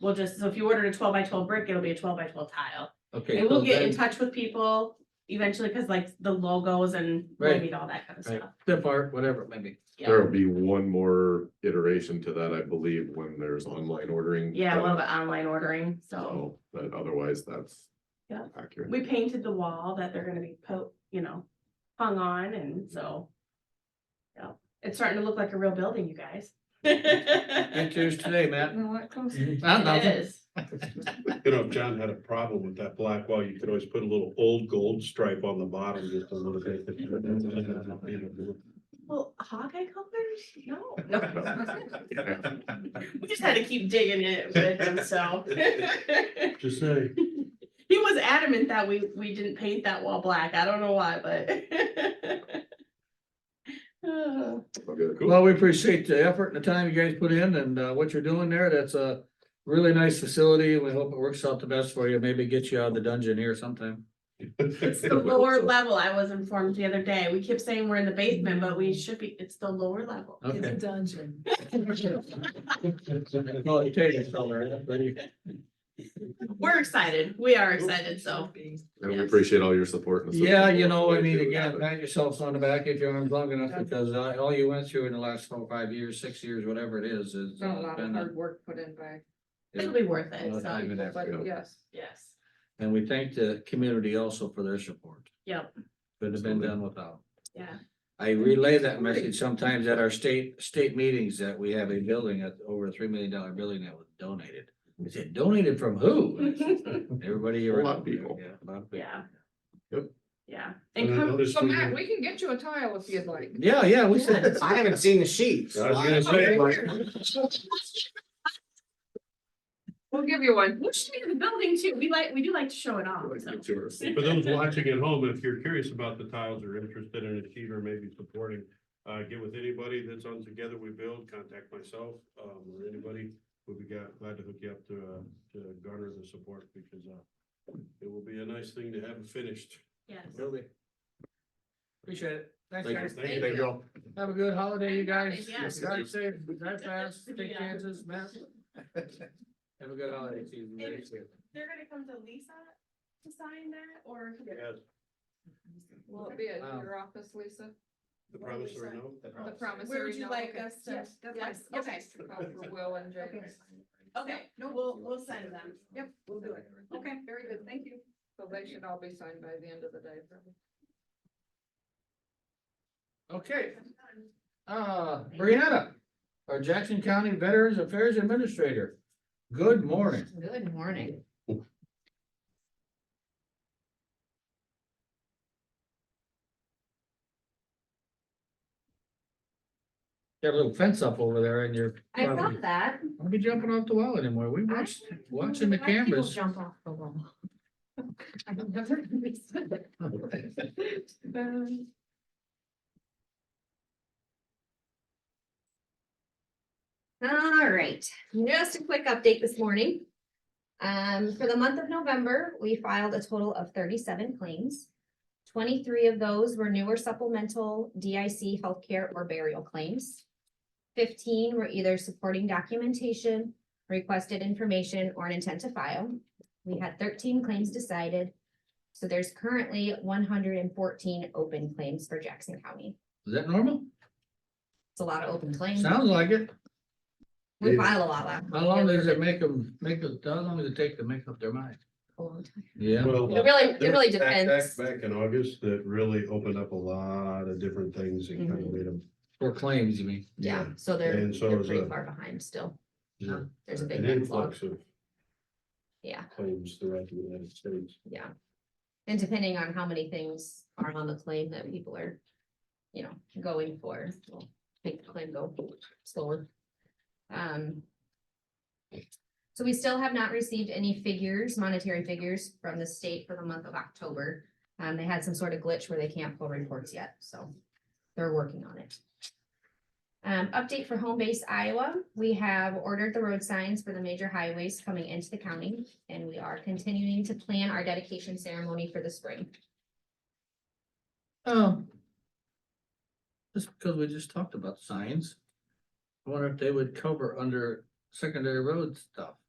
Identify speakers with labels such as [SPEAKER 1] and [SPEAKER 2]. [SPEAKER 1] we'll just, so if you ordered a twelve by twelve brick, it'll be a twelve by twelve tile.
[SPEAKER 2] Okay.
[SPEAKER 1] And
[SPEAKER 2] so
[SPEAKER 1] we'll get in
[SPEAKER 2] then-
[SPEAKER 1] touch with people eventually, cause like the logos and we'll
[SPEAKER 2] Right.
[SPEAKER 1] need all that kind of
[SPEAKER 2] Right,
[SPEAKER 1] stuff.
[SPEAKER 2] tip art, whatever, maybe.
[SPEAKER 1] Yeah,
[SPEAKER 3] There'll be one more iteration to that, I believe, when there's online ordering.
[SPEAKER 1] yeah, a little bit
[SPEAKER 3] done.
[SPEAKER 1] online ordering, so.
[SPEAKER 3] So, but otherwise, that's.
[SPEAKER 1] Yeah.
[SPEAKER 3] Accurate.
[SPEAKER 1] We painted the wall that they're gonna be po, you know, hung on and so. Yeah, it's starting to look like a real building, you guys.
[SPEAKER 2] Good
[SPEAKER 1] It
[SPEAKER 2] choose today, Matt.
[SPEAKER 4] No, what goes?
[SPEAKER 2] Ah, nothing.
[SPEAKER 1] is.
[SPEAKER 5] You know, if John had a problem with that black wall, you could always put a little old gold stripe on the bottom just a little bit.
[SPEAKER 1] Well, Hawkeye colors? No, no. We just had to keep digging it with him, so.
[SPEAKER 5] Just say.
[SPEAKER 1] He was adamant that we, we didn't paint that wall black. I don't know why, but. Uh,
[SPEAKER 3] Okay.
[SPEAKER 2] Well, we appreciate the effort and the time you guys put in and uh, what you're doing there. That's a really nice facility. We hope it works out the best for you. Maybe get you out of the dungeon here sometime.
[SPEAKER 1] It's the lower level, I was informed the other day. We kept saying we're in the basement, but we should be, it's the lower level.
[SPEAKER 4] It's a
[SPEAKER 2] Okay.
[SPEAKER 4] dungeon.
[SPEAKER 2] Well, you take it somewhere, that's pretty-
[SPEAKER 1] We're excited. We are excited, so.
[SPEAKER 3] And we
[SPEAKER 1] Yes.
[SPEAKER 3] appreciate all your support. and
[SPEAKER 2] Yeah,
[SPEAKER 3] assistance
[SPEAKER 2] you know, I
[SPEAKER 3] along the way
[SPEAKER 2] mean,
[SPEAKER 3] too.
[SPEAKER 2] again, pat yourselves on the back if your arm's long enough because uh, all you went through in the last four, five years, six years, whatever it is, is. uh,
[SPEAKER 4] It's been a lot of
[SPEAKER 2] been a-
[SPEAKER 4] hard work put in by,
[SPEAKER 1] It'll be worth
[SPEAKER 2] a lot
[SPEAKER 1] it,
[SPEAKER 2] of time
[SPEAKER 1] so,
[SPEAKER 2] and effort.
[SPEAKER 4] but yes.
[SPEAKER 1] yes.
[SPEAKER 2] And we thank the community also for their support.
[SPEAKER 1] Yep.
[SPEAKER 2] Could have been done without.
[SPEAKER 1] Yeah.
[SPEAKER 2] I relay that message sometimes at our state, state meetings that we have a building at over a three million dollar building that was donated. We said, donated from who? And it's Everybody
[SPEAKER 3] A lot of
[SPEAKER 2] around.
[SPEAKER 3] people.
[SPEAKER 2] Yeah, a lot of people.
[SPEAKER 1] Yeah.
[SPEAKER 3] Yep.
[SPEAKER 1] Yeah.
[SPEAKER 5] And
[SPEAKER 1] And
[SPEAKER 5] I
[SPEAKER 1] come,
[SPEAKER 5] noticed
[SPEAKER 4] So
[SPEAKER 5] we-
[SPEAKER 4] Matt, we can get you a tile if you'd like.
[SPEAKER 2] Yeah, yeah, we said,
[SPEAKER 6] I haven't seen the sheets.
[SPEAKER 5] I was gonna say,
[SPEAKER 4] We'll give you one.
[SPEAKER 1] we'll show you the building too. We like, we do like to show it off,
[SPEAKER 3] Like,
[SPEAKER 1] so.
[SPEAKER 3] it's yours.
[SPEAKER 5] For those watching at home, if you're curious about the tiles or interested in a sheet or maybe supporting, uh, get with anybody that's on Together We Build, contact myself, um, or anybody. We'd be glad glad to hook you up to, uh, to garner the support because, uh, it will be a nice thing to have finished.
[SPEAKER 1] Yes.
[SPEAKER 2] appreciate it. Thanks,
[SPEAKER 3] Thank you.
[SPEAKER 2] guys.
[SPEAKER 5] Thank
[SPEAKER 3] Thank you all.
[SPEAKER 2] Have a good holiday, you guys.
[SPEAKER 1] Yes.
[SPEAKER 2] Drive safe, drive fast, take
[SPEAKER 1] Yeah.
[SPEAKER 2] chances, Matt. Have a good holiday season.
[SPEAKER 1] Thank They're gonna come to Lisa to sign that or?
[SPEAKER 5] Yes,
[SPEAKER 4] Will it be at
[SPEAKER 2] Wow.
[SPEAKER 4] your office, Lisa?
[SPEAKER 5] the promissory note.
[SPEAKER 4] The promise.
[SPEAKER 1] Where would you like us to-
[SPEAKER 4] Yes, that's
[SPEAKER 1] Yes,
[SPEAKER 4] fine.
[SPEAKER 1] okay.
[SPEAKER 4] Just call for Will and Jay.
[SPEAKER 1] Okay. Okay, no, we'll, we'll send them.
[SPEAKER 4] Yep, we'll do it. Okay, very good. Thank you. So they should all be signed by the end of the day. probably.
[SPEAKER 2] Okay, uh, Brianna, our Jackson County Veterans Affairs Administrator. Good morning.
[SPEAKER 7] Good morning.
[SPEAKER 2] Got a little fence up over there and you're.
[SPEAKER 7] I
[SPEAKER 2] probably-
[SPEAKER 7] love that.
[SPEAKER 2] Don't be jumping off the wall anymore. We
[SPEAKER 7] I
[SPEAKER 2] watched,
[SPEAKER 7] don't
[SPEAKER 2] watching the
[SPEAKER 7] know why people
[SPEAKER 2] cameras.
[SPEAKER 7] Jump off the wall. I've never understood it.
[SPEAKER 2] Oh,
[SPEAKER 7] Um, All right, just a quick update this morning. Um, for the month of November, we filed a total of thirty-seven claims. Twenty-three of those were newer supplemental DIC healthcare or burial claims. Fifteen were either supporting documentation requested information or an intent to file. We had thirteen claims decided. So there's currently one hundred and fourteen open claims for Jackson County.
[SPEAKER 2] Is that normal?
[SPEAKER 7] It's a lot of open claims.
[SPEAKER 2] Sounds like it.
[SPEAKER 7] We file a lot last.
[SPEAKER 2] How long does it make them, make, us- how long does it take to make up their mind? Yeah.
[SPEAKER 5] Well,
[SPEAKER 7] It really, it
[SPEAKER 5] There
[SPEAKER 7] really
[SPEAKER 5] was that
[SPEAKER 7] depends.
[SPEAKER 5] Back back in August, that really opened up a lot of different things and kind of made them.
[SPEAKER 2] For claims, you mean?
[SPEAKER 7] Yeah, so Mm-hmm. they're,
[SPEAKER 5] And so
[SPEAKER 7] they're
[SPEAKER 5] is
[SPEAKER 7] pretty
[SPEAKER 5] a-
[SPEAKER 7] far behind still. Um,
[SPEAKER 5] Yeah.
[SPEAKER 7] There's a big
[SPEAKER 5] An
[SPEAKER 7] backlog.
[SPEAKER 5] influx of
[SPEAKER 7] Yeah,
[SPEAKER 5] claims throughout the United States.
[SPEAKER 7] yeah. And depending on how many things are on the claim that people are, you know, going for, will make the claim go slower. Um. So we still have not received any figures, monetary figures from the state for the month of October. Um, they had some sort of glitch where they can't pull reports yet, so they're working on it. Um, update for Home Base Iowa, we have ordered the road signs for the major highways coming into the county and we are continuing to plan our dedication ceremony for the spring.
[SPEAKER 2] Um. Just because we just talked about signs. I wonder if they would cover under secondary road stuff.